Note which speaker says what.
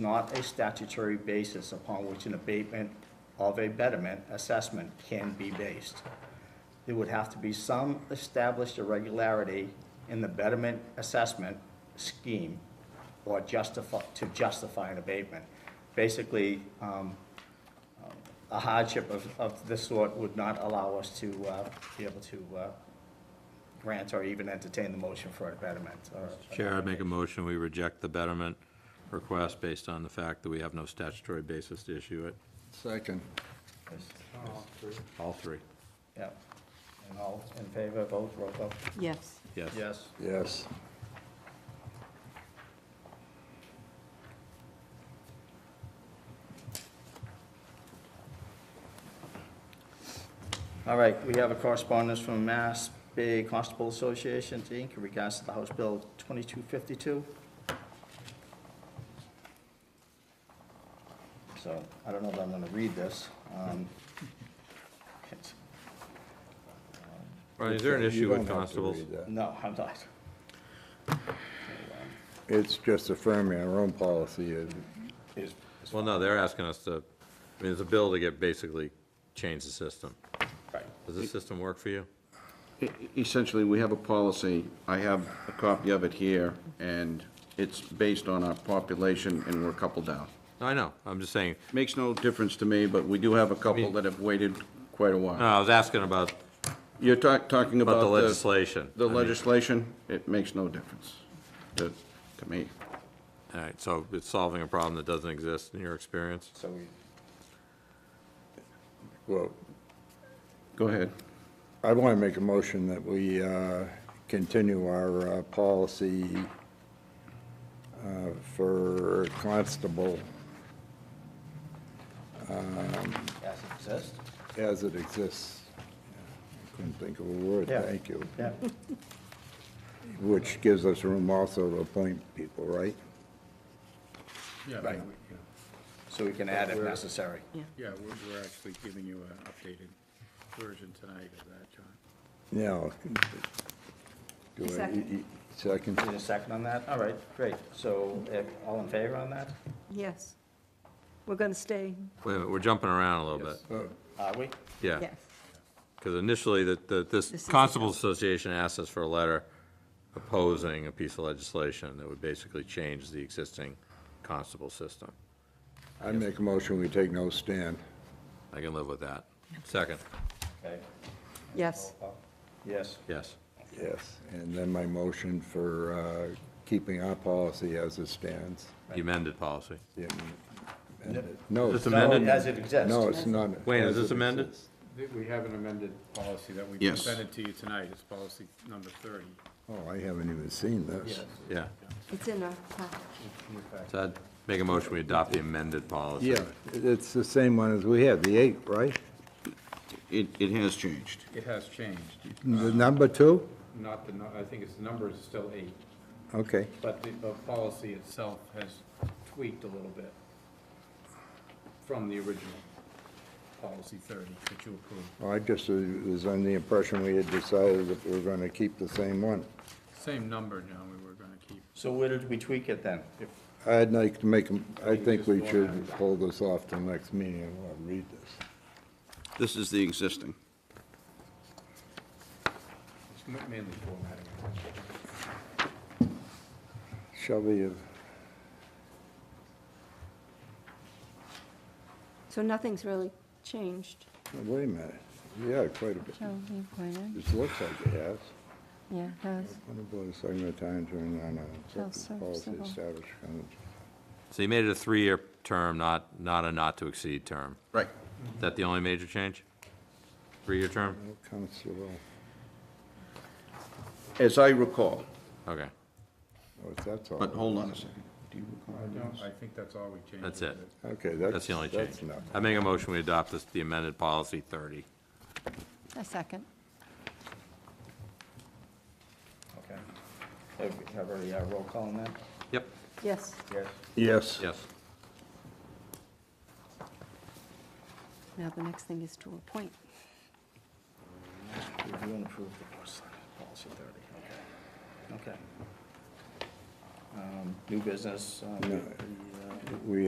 Speaker 1: not a statutory basis upon which an abatement of a betterment assessment can be based. There would have to be some established irregularity in the betterment assessment scheme or justify, to justify an abatement. Basically, um, a hardship of, of this sort would not allow us to uh, be able to uh, grant or even entertain the motion for Uh, a betterment or
Speaker 2: Chair, I'd make a motion, we reject the betterment request based on the fact that we have no statutory basis to issue it,
Speaker 3: Second.
Speaker 2: all three.
Speaker 1: Yeah. And all in favor, vote, roll call.
Speaker 4: Yes.
Speaker 2: Yes.
Speaker 1: Yes.
Speaker 3: Yes.
Speaker 1: All right, we have a correspondence from Mass Bay Constable Association, Inc., in regards to the House Bill 2252. So I don't know that I'm going to read this. um, it's-
Speaker 2: Ryan, is there an
Speaker 3: You
Speaker 2: issue with
Speaker 3: don't have to
Speaker 2: constables?
Speaker 3: read that.
Speaker 1: No, I'm not.
Speaker 3: It's just affirming our own policy. It-
Speaker 1: Is-
Speaker 2: Well, no, they're asking us to, I mean, it's a bill to get, basically, change the system.
Speaker 1: Right.
Speaker 2: Does this system work for you?
Speaker 5: E- Essentially, we have a policy, I have a copy of it here, and it's based on our population, and we're a couple down.
Speaker 2: No, I know, I'm just saying,
Speaker 5: Makes no difference to me, but we do have a couple that have waited quite a
Speaker 2: no,
Speaker 5: while.
Speaker 2: I was asking about,
Speaker 5: You're talk- talking about
Speaker 2: Uh, about
Speaker 5: the...
Speaker 2: the legislation.
Speaker 5: The
Speaker 2: I mean,
Speaker 5: legislation, it makes no difference to to me.
Speaker 2: All right, so it's solving a problem that doesn't exist in your experience?
Speaker 1: So we,
Speaker 3: Well,
Speaker 5: Go ahead.
Speaker 3: I want to make a motion that we uh, continue our uh, policy uh, for constable
Speaker 1: as it exists?
Speaker 3: as it exists. I Couldn't think of a word,
Speaker 1: Yeah.
Speaker 3: thank you.
Speaker 1: Yeah.
Speaker 3: Which gives us room also to appoint people, right?
Speaker 6: Yeah,
Speaker 1: Right.
Speaker 6: we- yeah.
Speaker 1: So we can add if necessary.
Speaker 6: yeah, we're, we're actually giving you an updated version tonight of that, John.
Speaker 3: No. Do I- e,
Speaker 4: Second.
Speaker 3: Second?
Speaker 1: Need a second on that? All right, great. So uh, all in favor on that?
Speaker 4: Yes. We're going to stay,
Speaker 2: Wait a minute, we're jumping around a little bit.
Speaker 3: Oh,
Speaker 1: Are we?
Speaker 2: Yeah.
Speaker 4: yes.
Speaker 2: Because initially, that, that
Speaker 4: This
Speaker 2: this
Speaker 4: is-
Speaker 2: Constable Association asked us for a letter opposing a piece of legislation that would basically change the existing constable system.
Speaker 3: I make a motion, we take no stand.
Speaker 2: I can live with that. Second,
Speaker 1: Okay. Oh,
Speaker 4: Yes,
Speaker 1: Yes.
Speaker 2: yes.
Speaker 3: Yes, and then my motion for uh, keeping our policy as it stands.
Speaker 2: The amended policy.
Speaker 3: Yeah, amended. No,
Speaker 2: Just
Speaker 3: it's
Speaker 1: No,
Speaker 2: amended?
Speaker 1: As it exists.
Speaker 3: No, it's not.
Speaker 2: Wayne, is
Speaker 3: as
Speaker 2: this
Speaker 3: it
Speaker 2: amended?
Speaker 3: exists.
Speaker 6: Th- We have an amended policy that we
Speaker 5: Yes.
Speaker 6: presented to you tonight, it's policy number thirty.
Speaker 3: Oh, I haven't even seen this.
Speaker 2: Yeah.
Speaker 4: it's in our package.
Speaker 2: So I'd make a motion, we adopt the amended policy.
Speaker 3: Yeah, it's the same one as we had, the eight, right?
Speaker 5: It, it has changed.
Speaker 6: It has changed,
Speaker 3: The number two?
Speaker 6: not the, nu- I think it's, the number is still eight,
Speaker 3: Okay,
Speaker 6: but the, the policy itself has tweaked a little bit from the original policy thirty that you approved.
Speaker 3: Well, I just was under the impression we had decided that we were going to keep the same one.
Speaker 6: Same number now we were gonna keep.
Speaker 1: So where did we tweak it then?
Speaker 3: I'd like to make, a- I think we should hold this off till next meeting and I'll read this.
Speaker 5: This is the existing.
Speaker 6: It's ma- mainly formatting.
Speaker 3: Shall we have?
Speaker 4: So nothing's really changed.
Speaker 3: Wait a minute, yeah, quite a bit.
Speaker 4: Shall we appoint
Speaker 3: It looks like it has.
Speaker 4: Yeah, it does.
Speaker 3: What about a second time during on a
Speaker 4: Shall
Speaker 3: accepted
Speaker 4: serve
Speaker 3: policy
Speaker 4: civil.
Speaker 3: established con-
Speaker 2: So you made it a three-year term, not, not a not-to-exceed term.
Speaker 5: Right.
Speaker 2: Is that the only major change? Three-year term?
Speaker 3: no constable,
Speaker 5: As I recall,
Speaker 2: Okay,
Speaker 3: oh, if that's all.
Speaker 5: but hold on a second. Do you recall?
Speaker 6: I don't, I think that's all we changed.
Speaker 2: that's it.
Speaker 3: Okay, that's.
Speaker 2: That's the only
Speaker 3: that's
Speaker 2: change.
Speaker 3: nothing.
Speaker 2: I make a motion, we adopt this, the amended policy 30.
Speaker 4: A second.
Speaker 1: Okay. Have have already uh, roll call on that?
Speaker 2: Yep,
Speaker 4: Yes,
Speaker 1: Yes.
Speaker 3: Yes.
Speaker 2: yes.
Speaker 4: now the next thing is to appoint.
Speaker 1: Review and approve the policy 30, okay. Okay. um, new business. uh,
Speaker 3: No.
Speaker 1: the, uh,
Speaker 3: We